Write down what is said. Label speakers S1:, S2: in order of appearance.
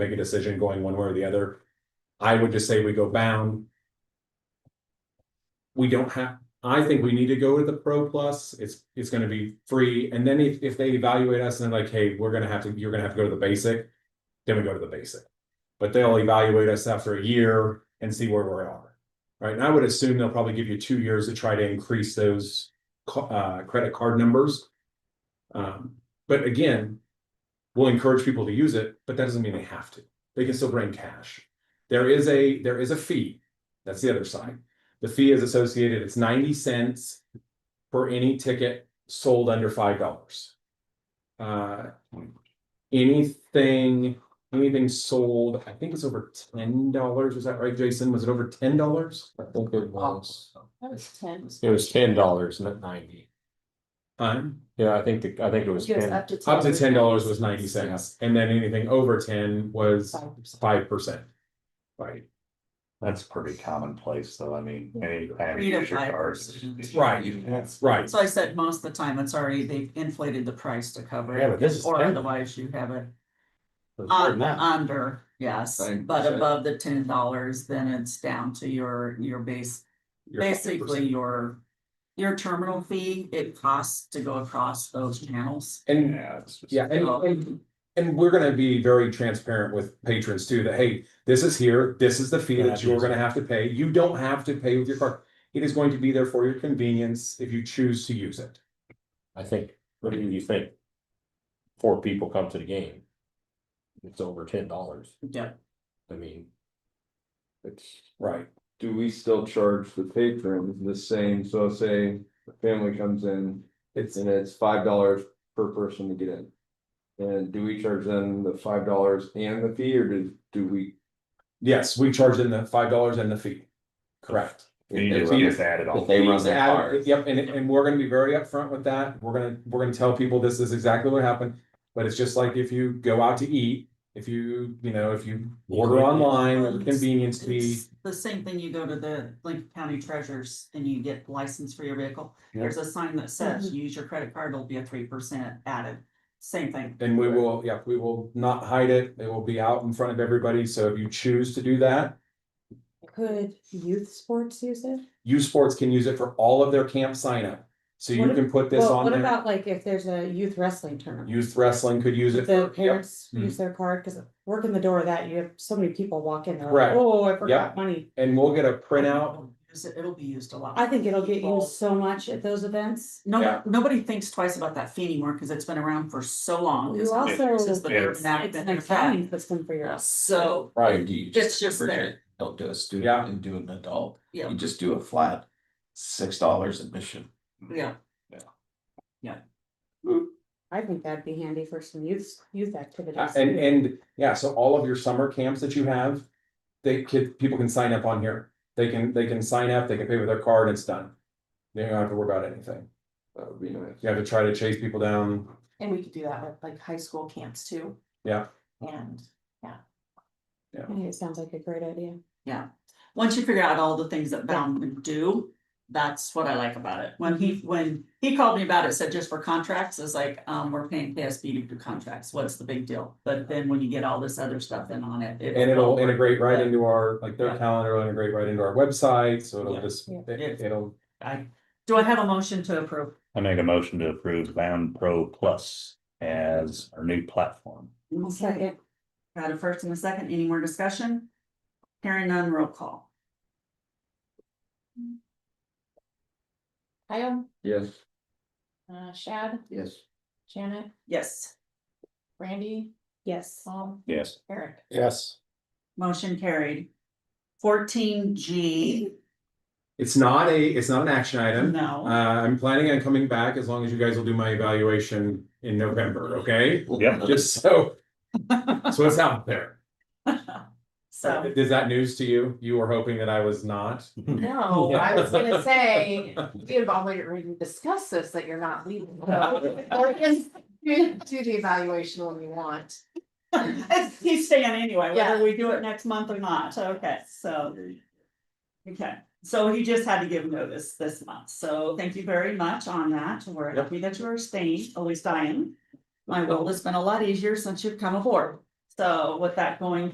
S1: make a decision going one way or the other. I would just say we go bound. We don't have, I think we need to go with the Pro Plus, it's, it's gonna be free, and then if, if they evaluate us and they're like, hey, we're gonna have to, you're gonna have to go to the basic. Then we go to the basic, but they'll evaluate us after a year and see where we are. Right, and I would assume they'll probably give you two years to try to increase those co- uh, credit card numbers. Um, but again, we'll encourage people to use it, but that doesn't mean they have to. They can still bring cash. There is a, there is a fee. That's the other side. The fee is associated, it's ninety cents for any ticket sold under five dollars. Uh, anything, anything sold, I think it's over ten dollars. Was that right, Jason? Was it over ten dollars?
S2: I think it was,
S3: That was ten.
S2: it was ten dollars, not ninety.
S1: Um,
S2: Yeah, I think, the I think it was
S3: It was
S2: ten.
S3: to
S1: up to ten dollars was ninety cents, and then anything over ten was
S3: Five percent.
S1: five percent. Right.
S4: That's pretty commonplace, though, I mean, any kind of
S5: Three to
S4: user
S5: five
S4: cards.
S5: percent.
S1: Right.
S2: Yes.
S1: Right.
S5: So I said most of the time, it's already, they've inflated the price to cover
S2: Yeah, but this is
S5: it, or
S2: 10.
S5: otherwise you have it
S2: It was more than
S5: on,
S2: that.
S5: under, yes.
S2: Same
S5: But
S2: percent.
S5: above the ten dollars, then it's down to your, your base,
S1: Your
S5: basically
S1: 5%.
S5: your, your terminal fee, it costs to go across those channels.
S1: And,
S4: Yeah, it's just-
S1: yeah, and,
S5: So-
S1: and, and we're gonna be very transparent with patrons too, that, hey, this is here, this is the fee that you're gonna have to pay. You don't have to pay with your card. It is going to be there for your convenience if you choose to use it.
S2: I think, what do you think? Four people come to the game. It's over ten dollars,
S5: Yep.
S2: I mean.
S6: It's,
S1: Right.
S6: do we still charge the patrons the same, so say a family comes in
S1: It's,
S6: and it's five dollars per person to get in? And do we charge them the five dollars and the fee, or do, do we?
S1: yes, we charge them the five dollars and the fee. Correct.
S4: You just-
S1: If you-
S4: just add it all.
S6: They run
S1: Fees
S6: their
S1: added-
S6: card.
S1: Yep, and, and we're gonna be very upfront with that. We're gonna, we're gonna tell people this is exactly what happened. But it's just like if you go out to eat, if you, you know, if you order
S2: Yeah.
S1: online, there's a
S5: It's-
S1: convenience fee.
S5: It's the same thing, you go to the Lincoln County Treasurers and you get license for your vehicle, there's a sign that
S1: Mm-hmm.
S5: says, use your credit card, it'll be a three percent added, same thing.
S1: And we will, yeah, we will not hide it. It will be out in front of everybody. So if you choose to do that,
S3: Could youth sports use it?
S1: U Sports can use it for all of their camp sign up. So you
S3: What-
S1: can put this
S3: Well,
S1: on
S3: what
S1: there.
S3: about like if there's a youth wrestling tournament?
S1: Youth wrestling could use it.
S3: If The
S1: for- yep.
S3: parents use their card, cause working the door of that, you have so many people walk in, they're like,
S1: Correct.
S3: oh, I forgot money.
S1: And we'll get a printout.
S5: Use it- It'll be used a lot.
S3: I think it'll get used so much at those events.
S1: Yeah.
S5: No, nobody thinks twice about that fee anymore because it's been around for so long.
S3: You
S5: It's not-
S3: also-
S5: it's just the
S4: Yeah.
S5: urban act
S3: It's
S5: that
S3: an
S5: they've had.
S3: accounting system for your.
S5: So
S2: Right.
S5: it's just there,
S7: Don't do a
S1: Yeah.
S7: student and do an adult.
S5: Yeah.
S7: You just do a flat six dollars admission.
S5: yeah.
S3: I think that'd be handy for some youth, youth activities.
S1: Uh, And, and yeah, so all of your summer camps that you have, they could, people can sign up on here. They can, they can sign up, they can pay with their card, it's done. They don't have to worry about anything.
S6: That would be nice.
S1: You have to try to chase people down.
S8: And we could do that with like high school camps too.
S1: Yeah.
S8: And
S3: I think It sounds like a great idea.
S5: Once you figure out all the things that Bound would do, that's what I like about it. When he, when he called me about it, said just for contracts, it's like, um, we're paying KSB to do contracts. What's the big deal? But then when you get all this other stuff in on it.
S1: And it'll integrate right into our, like their
S5: Yeah.
S1: calendar, will integrate right into our website, so it'll
S5: Yeah.
S1: just,
S3: Yeah.
S1: it- it'll,
S5: I, do I have a motion to approve?
S4: I make a motion to approve Bound Pro Plus as our new platform.
S3: Second,
S5: Got a first and a second, any more discussion? Hearing none, roll call.
S8: Kyle,
S6: Yes.
S8: uh, Shad,
S6: Yes.
S8: Janet,
S5: Yes,
S8: Randy,
S3: yes.
S8: Tom,
S4: Yes.
S8: Eric.
S2: Yes.
S5: motion carried. Fourteen G,
S1: it's not a, it's not an action item. Uh,
S5: no,
S1: I'm planning on coming back as long as you guys will do my evaluation in November, okay?
S4: Yep.
S1: Just so, so it's out there.
S5: so,
S1: Is that news to you? You were hoping that I was not?
S8: No, I was gonna say, we have already discussed this, that you're not leaving. so- Or is- Do the evaluation when you want.
S5: It's- he's staying anyway,
S8: Yeah.
S5: whether we do it next month or not, okay, so. Okay, so he just had to give notice this month, so thank you very much on that, we're happy that you are staying, always dying. My world has been a lot easier since you've come aboard, So with that going